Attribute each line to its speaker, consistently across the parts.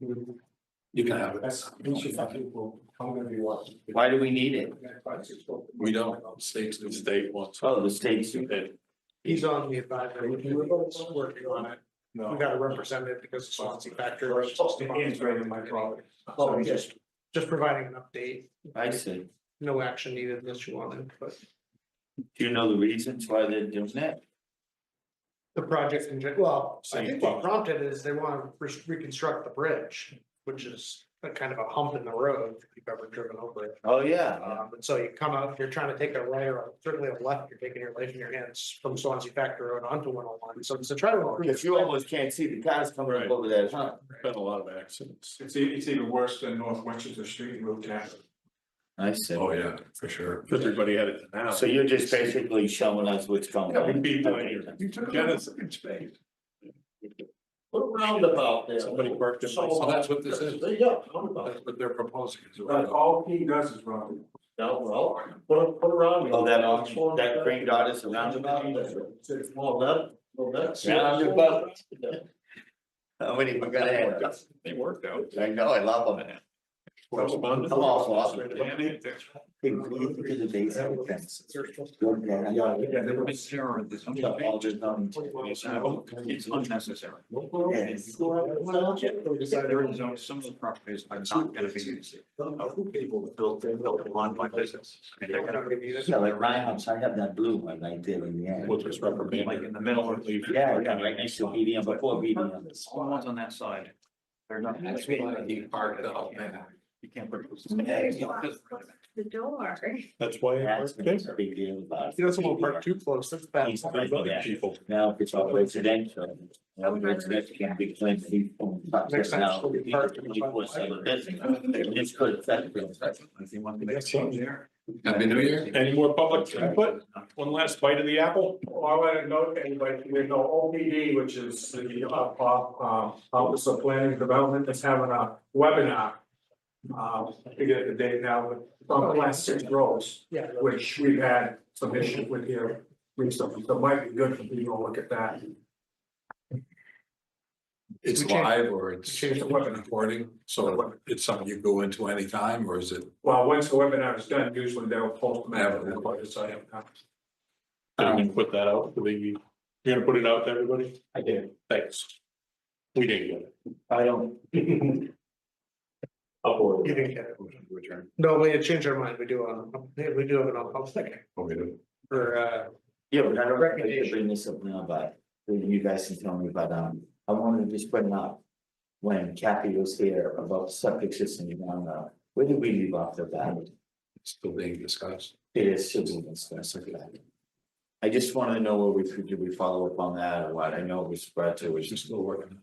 Speaker 1: You can have it.
Speaker 2: Why do we need it?
Speaker 1: We don't, states do state ones.
Speaker 2: Oh, the state's.
Speaker 3: He's on the advisory, committee. we're both working on it, we
Speaker 1: No.
Speaker 3: gotta represent it because of Swansea factor. It's just an integrated my property.
Speaker 2: Oh,
Speaker 3: So just, just providing an update,
Speaker 2: I see.
Speaker 3: no action needed unless you want it, but
Speaker 2: Do you know the reasons why they're doing that?
Speaker 3: the project in, gen- well, I think what
Speaker 1: Safety.
Speaker 3: prompted is they wanna re- reconstruct the bridge, which is a kind of a hump in the road, if you've ever driven over it.
Speaker 2: Oh, yeah.
Speaker 3: Um, and so you come out, you're trying to take a right or certainly a left, you're taking your life in your hands from Swansea Factor Road onto one oh one, so it's a try to. improve
Speaker 2: Cause you almost can't see the cars coming up
Speaker 1: Right.
Speaker 2: over that hump.
Speaker 1: Been a lot of accidents.
Speaker 4: It's e- it's even worse than North Winchester Street in Rochester.
Speaker 2: I see.
Speaker 4: Oh, yeah, for sure.
Speaker 1: Everybody had it now.
Speaker 2: So you're just basically showing us what's going
Speaker 1: Yeah,
Speaker 2: on.
Speaker 1: we'd be doing
Speaker 2: Okay.
Speaker 1: it.
Speaker 4: You took
Speaker 1: Yeah,
Speaker 4: a
Speaker 1: that's-
Speaker 4: space.
Speaker 2: What roundabout there?
Speaker 1: Somebody worked it.
Speaker 2: So- uh,
Speaker 1: that's what this is.
Speaker 2: Yeah, roundabout.
Speaker 1: That's what they're proposing. is a
Speaker 4: But
Speaker 1: roundabout.
Speaker 4: all he does is run.
Speaker 2: No, well, put a, put a roundabout. Oh, that, ox- that green dot is a roundabout?
Speaker 4: Well, that, well, that's.
Speaker 2: Roundabout. How many we gotta have?
Speaker 1: They worked out.
Speaker 2: I know, I love them.
Speaker 1: Correspondence.
Speaker 2: I'm awful, I'll be
Speaker 1: Danny,
Speaker 2: to the base of the fence. Yeah,
Speaker 4: Yeah, they were terror. This.
Speaker 2: I'll just, um,
Speaker 1: Oh,
Speaker 4: It's unnecessary.
Speaker 2: Yes.
Speaker 4: There is no- some of the properties are not gonna be used. People built, they built on my business. I mean, they're gonna be
Speaker 2: Yeah, like Ryan, House, I have that blue one right there in the end.
Speaker 1: We'll just reprimand.
Speaker 4: like in the middle or leave.
Speaker 2: Yeah, yeah, right next to medium, before medium.
Speaker 4: All ones on that side. They're not.
Speaker 1: That's why he parked up, man.
Speaker 4: You can't put.
Speaker 5: The door.
Speaker 1: That's why. I
Speaker 2: That's
Speaker 1: worked
Speaker 2: been
Speaker 1: it.
Speaker 2: a big deal about.
Speaker 3: See, that's a little part too close, that's bad.
Speaker 2: He's big for
Speaker 1: Other
Speaker 2: that.
Speaker 1: people.
Speaker 2: Now, if it's all residential, now residential can be claimed to be. owned by
Speaker 3: Next time
Speaker 2: now,
Speaker 3: she'll be parked in the front.
Speaker 2: 24/7 business. It's good, affect them.
Speaker 1: Happy New Year. Any more public input? One last bite of the apple?
Speaker 4: Well, I want to note, to anybody, we know O P D, which is the uh, uh, uh, Office of Planning and Development, is having a webinar. Uh, I forget the date now, but it's on the last six rows,
Speaker 3: Yeah.
Speaker 4: which we've had some issues with here recently, so it might be good for people to look at that.
Speaker 1: It's
Speaker 3: We changed-
Speaker 1: live or it's
Speaker 4: we changed the weapon.
Speaker 1: recording, so it's something you go into anytime or is it?
Speaker 4: Well, once the webinar is done, usually they'll post them out on the website.
Speaker 1: Are you gonna put that out, Do they- you're gonna put it out to everybody?
Speaker 2: I do.
Speaker 1: Thanks. We didn't get it.
Speaker 2: I don't.
Speaker 1: Upload.
Speaker 3: You didn't get it.
Speaker 1: Return.
Speaker 3: No, we had changed our mind, we do, um, we do have an public
Speaker 1: Oh, we do.
Speaker 3: for, uh,
Speaker 2: Yeah, but I don't, I could
Speaker 3: Recommendation.
Speaker 2: bring this up now, but then you guys can tell me about, um, I wanted to just bring up. When Kathy was here about septic system, you know, uh, where did we leave off the bat?
Speaker 1: It's Still being discussed.
Speaker 2: It is civil and stuff like that. I just wanted to know what we, could- did we follow up on that or what? I know it was spread to, was
Speaker 1: She's
Speaker 2: just,
Speaker 1: still working.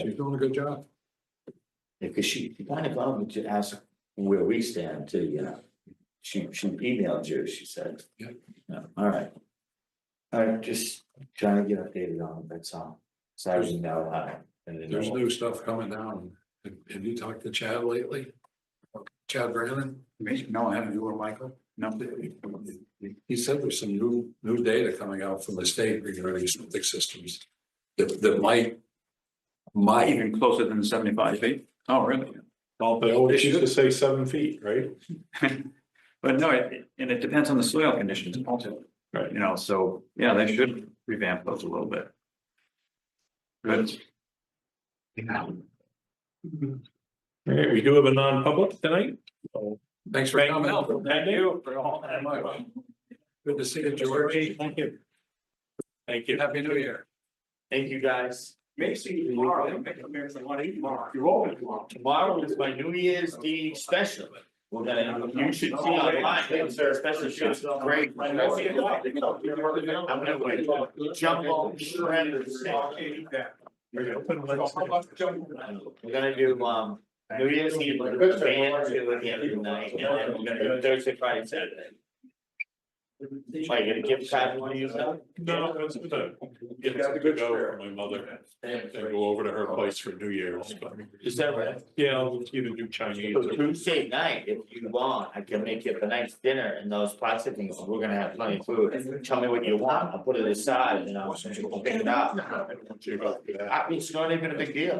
Speaker 1: She's doing a good job.
Speaker 2: because she kind of wanted to ask where we stand to, you know. She, she emailed you, she said.
Speaker 1: Yeah.
Speaker 2: No, all right. All right, just trying to get updated on, it, that's all. So I was know how. and then-
Speaker 1: There's new stuff coming down. Have have you talked to Chad lately? Chad Brandon? No, I haven't. You or Michael? No. He said there's some new, new data coming out from the state regarding septic systems that, that might, might.
Speaker 6: Even closer than seventy-five feet? Oh, really? Well,
Speaker 1: They
Speaker 6: but it
Speaker 1: always used to
Speaker 6: should-
Speaker 1: say seven feet, right?
Speaker 6: but no, it- and it depends on the soil conditions also.
Speaker 1: Right.
Speaker 6: You know, so, yeah, they should revamp those a little bit. Good.
Speaker 1: All right, we do have a non-public tonight.
Speaker 6: Thanks
Speaker 1: for coming.
Speaker 6: Thank you for all that much.
Speaker 1: Good to see you, George.
Speaker 6: Thank you.
Speaker 1: Thank you.
Speaker 6: Happy New Year.
Speaker 2: Thank you, guys.
Speaker 6: Make sure you
Speaker 2: tomorrow.
Speaker 6: I make a I want to eat tomorrow.
Speaker 2: You're open tomorrow. Tomorrow is my New Year's Eve special. We're gonna, you should see online, it's a special shit's great. I'm gonna wait, jump on, shredders. We're gonna do, um, New Year's Eve with the band, do it the other night, and then we're gonna do Thursday, Friday, Saturday. Like, a gift card, one of you know?
Speaker 7: No, that's the,
Speaker 4: You got the
Speaker 7: to
Speaker 4: good
Speaker 7: go
Speaker 4: spirit.
Speaker 7: for my mother and go over to her place for New Year's. but-
Speaker 2: Is that right?
Speaker 7: Yeah, I'll either do Chinese.
Speaker 2: So
Speaker 7: or-
Speaker 2: Tuesday night, if you want, I can make you a nice dinner and those plastic things, we're gonna have plenty of food. Tell me what you want, I'll put it aside and I'll pick it up. I mean, it's not even a big deal.